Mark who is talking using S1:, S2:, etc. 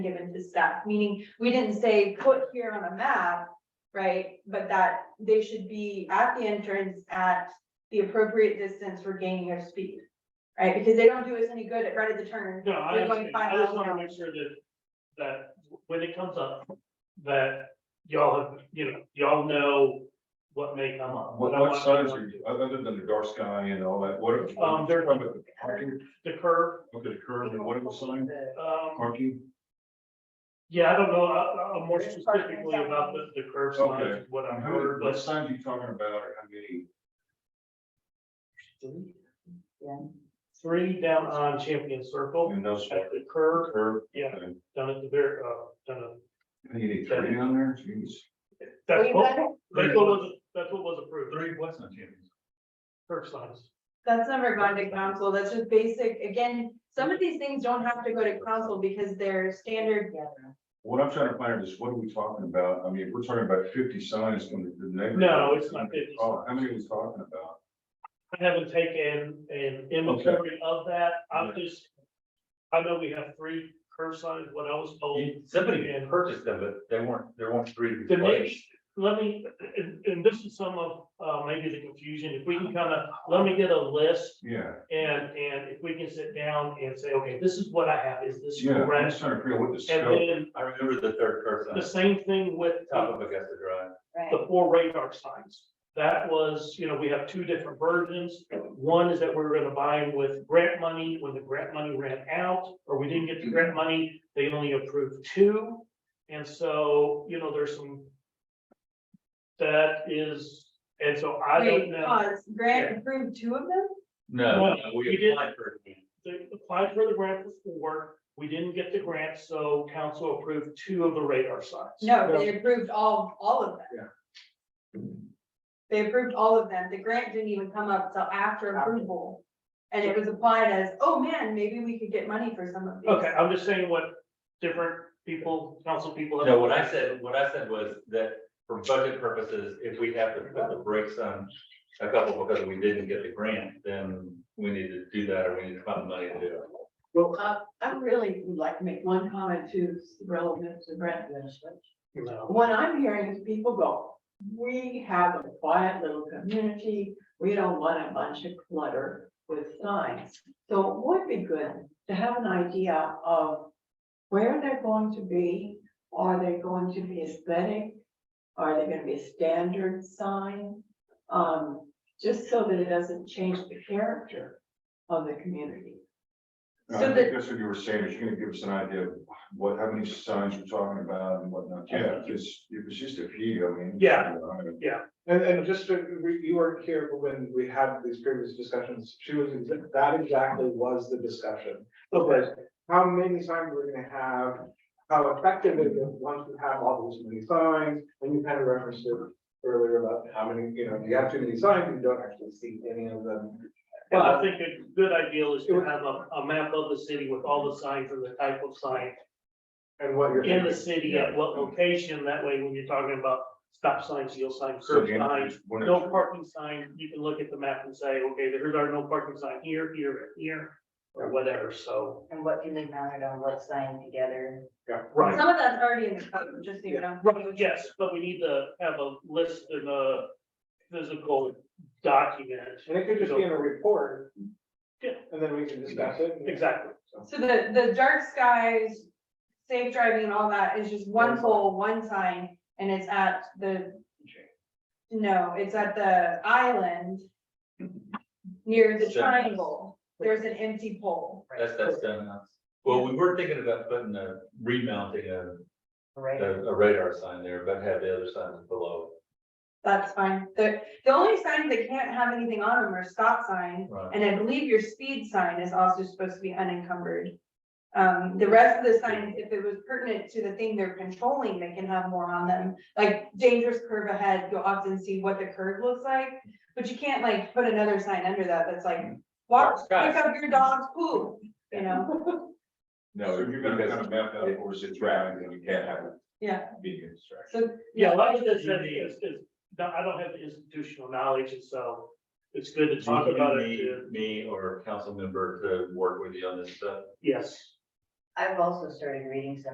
S1: given to staff, meaning we didn't say put here on a map, right? But that they should be at the entrance at the appropriate distance for gaining of speed, right? Because they don't do us any good at right at the turn.
S2: No, I
S1: We're going
S2: understand. I
S1: five
S2: just wanna
S1: miles an
S2: make sure that, that when it comes up, that y'all have, you know, y'all know what may come up.
S3: What,
S2: I
S3: what
S2: want-
S3: signs are you, other than the dark sky and all that, what? are-
S2: Um, there-
S3: Talking about the Parking,
S2: The curve,
S3: look at the curve and what are the sign,
S2: um,
S3: parking,
S2: yeah, I don't know, I, I'm more specifically about the, the curve
S3: Okay.
S2: signs, what I
S3: and how many,
S2: heard,
S3: what
S2: but
S3: signs are you talking about, or how many?
S2: three down on Champion Circle,
S3: And those,
S2: at the curve,
S3: curve,
S2: yeah,
S3: Okay.
S2: down at the very, uh, down at.
S3: you need three on there, jeez.
S2: That's
S1: We've
S2: what,
S1: got-
S2: that's what was, that's what was approved,
S3: what's not Jimmy's?
S2: curve signs.
S1: That's never gone to council, that's just basic, again, some of these things don't have to go to council because they're standard.
S3: What I'm trying to find out is what are we talking about, I mean, if we're talking about fifty signs from the neighborhood.
S2: No, it's not 50
S3: Oh, how many are we talking about?
S2: I haven't taken an inventory of that, I'm just, I know we have three curve signs, what I was told.
S4: You- Somebody had purchased them, but they weren't, there weren't three
S2: The next,
S4: replaced.
S2: let me, and, and this is some of, uh, maybe the confusion, if we can kind of, let me get a list.
S3: Yeah,
S2: And, and if we can sit down and say, okay, this is what I have, is this
S3: yeah, I'm
S2: correct?
S3: just trying to figure out what the
S2: And
S3: scope,
S2: then
S4: I remember the third
S2: the
S4: person,
S2: same thing with
S4: top of Augusta Drive.
S2: the four radar signs. That was, you know, we have two different versions. One is that we were gonna buy them with grant money, when the grant money ran out, or we didn't get the grant money, they only approved two. And so, you know, there's some. That is, and so I don't
S1: Wait, uh,
S2: know,
S1: pause, Grant approved two of them?
S4: No,
S2: No, you
S4: we
S2: didn't.
S4: applied for it.
S2: they applied for the grant for four, we didn't get the grant, so council approved two of the radar signs.
S1: No, they approved all, all of them.
S3: Yeah.
S1: They approved all of them. The grant didn't even come up till after approval. And it was applied as, oh man, maybe we could get money for some of these.
S2: Okay, I'm just saying what different people, council people. have-
S4: No, what I said, what I said was that for budget purposes, if we have to put the brakes on a couple because we didn't get the grant, then we need to do that or we need to find money to do it.
S5: Uh, I really would like to make one comment too that's relevant to Brent.
S2: No.
S5: What I'm hearing is people go, we have a quiet little community. We don't want a bunch of clutter with signs. So it would be good to have an idea of where they're going to be. Are they going to be aesthetic? Are they gonna be a standard sign? Um, just so that it doesn't change the character of the community.
S3: Uh, I
S1: So
S3: think that's what you were saying, is you're gonna give us an idea of what, how many signs we're talking about and whatnot, yeah, because if it's just a few, I mean.
S2: Yeah.
S3: I mean,
S6: And, and just, to- we- you weren't here when we had these previous discussions, she was, exa- that exactly was the discussion. Was how many signs we're gonna have, how effective it is once we have all these many signs, and you kind of referenced it earlier about how many, you know, if you have too many signs, you don't actually see any of them.
S2: And I
S3: uh,
S2: think a good idea is to have a, a map of the city with all the signs and the type of sign
S6: And what you're.
S2: in the city at what location. That way, when you're talking about stop signs, yield signs,
S3: So
S2: curb
S3: the
S2: signs,
S3: answer is one of
S2: no
S3: the-
S2: parking sign, you can look at the map and say, okay, there's our no parking sign here, here, and here, or whatever, so.
S7: And what can be mounted on what sign together?
S2: Right,
S1: Some of that's already in the code, just so you know.
S2: right, yes, but we need to have a list and a physical document.
S6: And it could just be in a report.
S2: Yeah.
S6: And then we can discuss it. and-
S2: Exactly,
S1: So the, the dark skies, safe driving and all that is just one pole, one sign, and it's at the. No, it's at the island. Near the
S4: Sure.
S1: triangle, there's an empty pole.
S4: That's, that's done now. Well, we were thinking about putting a remounting a,
S7: Right.
S4: a a radar sign there, but have the other signs below.
S1: That's fine. The, the only signs that can't have anything on them are stop sign,
S4: Right.
S1: and I believe your speed sign is also supposed to be unencumbered. Um, the rest of the signs, if it was pertinent to the thing they're controlling, they can have more on them. Like dangerous curve ahead, you'll often see what the curve looks like, but you can't like put another sign under that that's like, walk, pick
S4: Guys.
S1: up your dog's poop, you know?
S3: No, if you're gonna kind of map out, or is it driving, and you can't have it
S1: Yeah,
S3: being a distraction.
S1: so.
S2: yeah, a lot of this is, is, is- I don't have the institutional knowledge, and so it's good to talk about it,
S4: Me-
S2: to-
S4: Me or council member to work with you on this stuff.
S2: yes.
S7: I've also started reading some